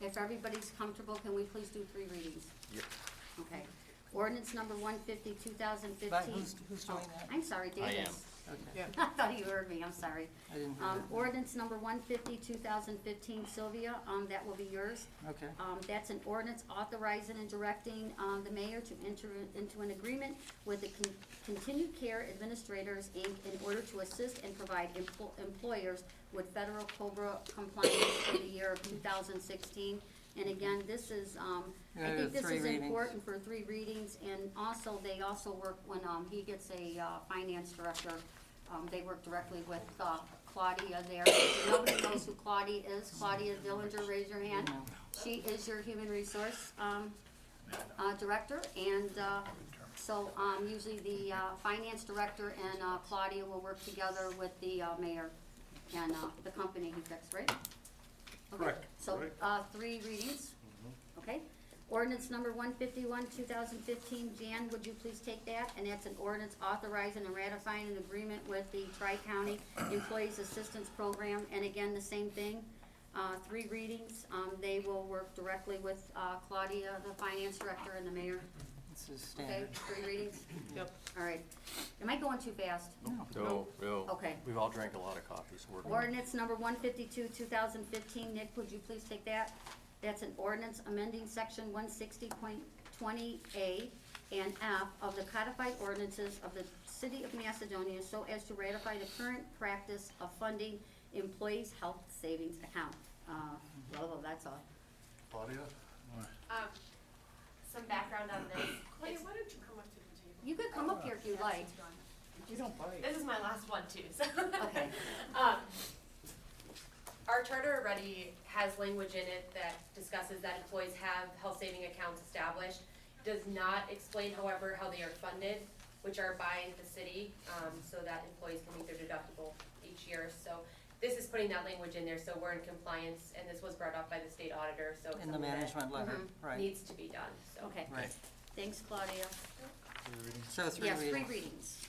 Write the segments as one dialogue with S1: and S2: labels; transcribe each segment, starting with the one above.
S1: If everybody's comfortable, can we please do three readings?
S2: Yep.
S1: Okay. Ordinance number one fifty, two thousand fifteen. Oh,
S3: But who's- who's doing that?
S1: I'm sorry,
S2: I
S1: Davis.
S2: am.
S3: Okay,
S4: Yeah.
S1: I thought you heard me, I'm sorry.
S3: I didn't hear
S1: Um,
S3: that.
S1: ordinance number one fifty, two thousand fifteen, Sylvia, um, that will be yours.
S3: Okay,
S1: Um, that's an ordinance authorizing and directing, um, the mayor to enter into an agreement with the Con- Continued Care Administrators, Inc. in order to assist and provide empl- employers with federal COBRA compliance for the year of two thousand sixteen. And again, this is, um, I
S3: Yeah,
S1: think this
S3: three
S1: is
S3: readings.
S1: important for three readings, and also, they also work when, um, he gets a, uh, finance director, um, they work directly with, uh, Claudia there. If Nobody knows who Claudia is, Claudia Dillinger, raise your hand.
S3: No.
S1: She is your human resource, um, uh, director, and, uh, so, um, usually the, uh, finance director and, uh, Claudia will work together with the, uh, mayor and, uh, the company he picks, right? Okay,
S5: Correct,
S1: So,
S5: correct.
S1: uh, three readings, okay? Ordinance number one fifty-one, two thousand fifteen, Jan, would you please take that? And that's an ordinance authorizing and ratifying an agreement with the Tri-County Employees Assistance Program, and again, the same thing. Uh, three readings, um, they will work directly with, uh, Claudia, the finance director, and the mayor,
S3: this is
S1: okay?
S3: standard.
S1: Three readings,
S4: Yep.
S1: all right. Am I going too fast?
S3: No.
S2: No, no.
S1: Okay.
S2: We've all drank a lot of coffee, so we're. good.
S1: Ordinance number one fifty-two, two thousand fifteen, Nick, would you please take that? That's an ordinance amending section one sixty point twenty A and F of the codified ordinances of the city of Macedonia so as to ratify the current practice of funding employees' health savings account. Uh, blah, blah, that's all.
S5: Claudia?
S6: Um, some background on this.
S4: Claudia,
S6: It's-
S4: why don't you come up to the table?
S1: You could come up here if you'd like.
S3: You don't bite.
S6: This is my last one too, so.
S1: Okay.
S6: Um, our charter already has language in it that discusses that employees have health saving accounts established. Does not explain however how they are funded, which are by the city, um, so that employees can meet their deductible each year. So this is putting that language in there, so we're in compliance, and this was brought up by the state auditor, so it's
S3: In the
S6: something that
S3: management letter,
S1: Mm-hmm.
S3: right,
S6: Needs to be done, so.
S1: Okay,
S3: right.
S1: thanks Claudia.
S3: So three
S1: Yes,
S3: readings.
S1: three readings,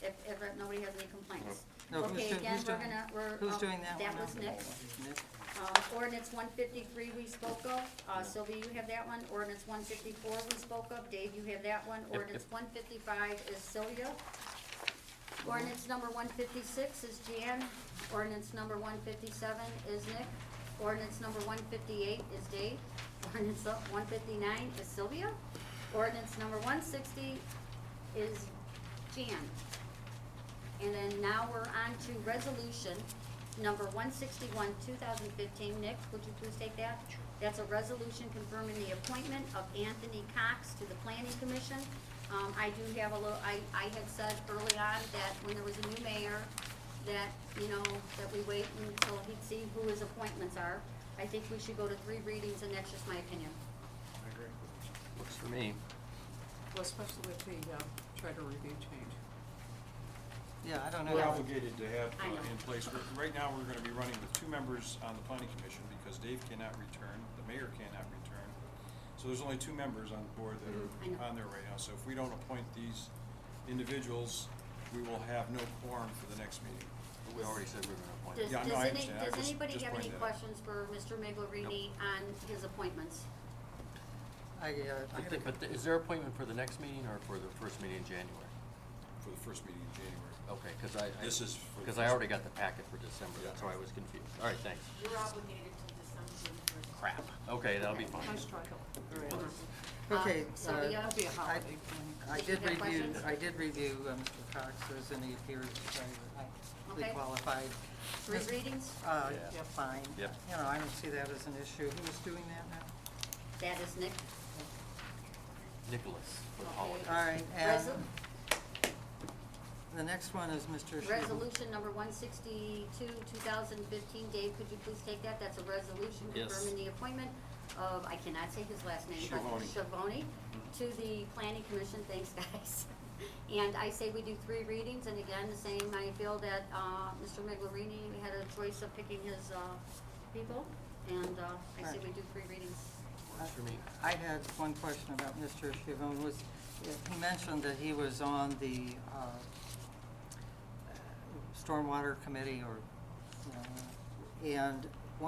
S1: if, if nobody has any complaints.
S3: No, who's
S1: Okay,
S3: doing-
S1: again,
S3: who's
S1: we're
S3: doing-
S1: gonna, we're.
S3: Who's
S1: um,
S3: doing that one
S1: That
S3: now?
S1: was Nick.
S3: Nick?
S1: Uh, ordinance one fifty-three we spoke of, uh, Sylvia, you have that one, ordinance one fifty-four we spoke of, Dave, you have that one, ordinance one fifty-five is Sylvia. Ordinance number one fifty-six is Jan, ordinance number one fifty-seven is Nick, ordinance number one fifty-eight is Dave, ordinance one fifty-nine is Sylvia, ordinance number one sixty is Jan. And then now we're on to resolution number one sixty-one, two thousand fifteen. Nick, would you please take that? That's a resolution confirming the appointment of Anthony Cox to the planning commission. Um, I do have a little, I, I had said early on that when there was a new mayor, that, you know, that we wait until he'd see who his appointments are. I think we should go to three readings, and that's just my opinion.
S2: Works for me.
S4: Well, especially with the uh, charter review change.
S3: Yeah, I don't know.
S5: We're
S3: that-
S5: obligated to have
S1: I know.
S5: uh, in place, but right now, we're gonna be running with two members on the planning commission because Dave cannot return, the mayor cannot return. So there's only two members on the board
S1: Mm-hmm. I know.
S5: that are on there right now, so if we don't appoint these individuals, we will have no quorum for the next meeting.
S2: But We already said we were gonna appoint.
S1: Does,
S5: Yeah,
S1: does
S5: no, I
S1: any,
S5: understand. I
S1: does
S5: just-
S1: anybody
S5: just
S1: have any
S5: pointed that out.
S1: questions for Mr. Miglerini on his appointments?
S3: I, uh,
S2: But,
S3: I gotta
S2: the- but the- is there appointment for the next meeting or for the first meeting in January?
S5: For the first meeting in January.
S2: Okay, cause I. I-
S5: This is for the
S2: Cause I
S5: first-
S2: already got the packet for December,
S5: Yeah.
S2: that's why I was confused. All right, thanks.
S6: You're obligated to December first.
S2: Crap. Okay, that'll be fine.
S4: I struggle.
S1: Uh,
S3: Okay,
S1: Sylvia?
S4: That'll be a holiday.
S3: I
S1: Did you
S3: did
S1: have
S3: review,
S1: questions?
S3: I did review uh, Mr. Cox's, and he appears highly
S1: Okay.
S3: qualified.
S1: Three
S3: Mr.
S1: readings?
S3: Uh,
S2: Yeah.
S3: yeah, fine.
S2: Yep.
S3: You know, I don't see that as an issue. Who's doing that now?
S1: That is Nick.
S2: Nicholas for the
S1: Okay.
S2: holidays.
S3: All right, um, and
S1: Resol-
S3: the next one is Mr. Shu.
S1: Resolution number one sixty-two, two thousand fifteen, Dave, could you please take that? That's a resolution
S2: Yes.
S1: confirming the appointment of, I cannot say his last name, but
S5: Schiavone.
S1: Shavoni to the planning commission, thanks guys. And I say we do three readings, and again, the same, I feel that, uh, Mr. Miglerini had a choice of picking his, uh, people, and, uh, I say we do three readings.
S2: Works for me.
S3: I had one question about Mr. Shivon, was, he mentioned that he was on the uh, Stormwater Committee or, you know, uh, and